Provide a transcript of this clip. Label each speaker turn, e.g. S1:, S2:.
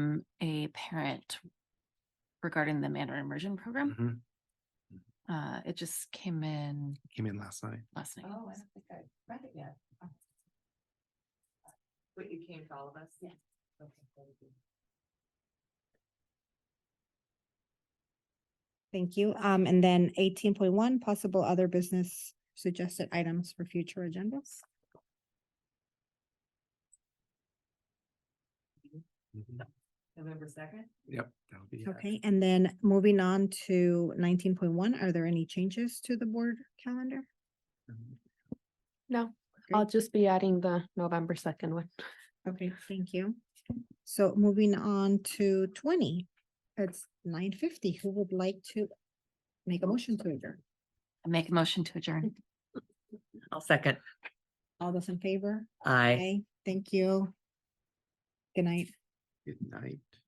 S1: from a parent regarding the Mandarin immersion program.
S2: Mhm.
S1: Uh, it just came in
S2: Came in last night.
S1: last night.
S3: Mm-hmm. Oh, I don't think I read it yet. Uh, But you came to all of us? Yeah.
S4: Thank you. Um, and then eighteen point one, possible other business suggested items for future agendas.
S2: Mhm.
S3: November second?
S2: Yep. that would be it.
S4: Okay, and then moving on to nineteen point one, are there any changes to the board calendar?
S2: Mhm.
S5: No,
S4: Great.
S5: I'll just be adding the November second one.
S4: Okay, thank you. So moving on to twenty, it's nine fifty. Who would like to make a motion to adjourn?
S1: I make a motion to adjourn.
S6: I'll second.
S4: All those in favor?
S6: Aye.
S4: Aye, thank you. Good night.
S2: Good night.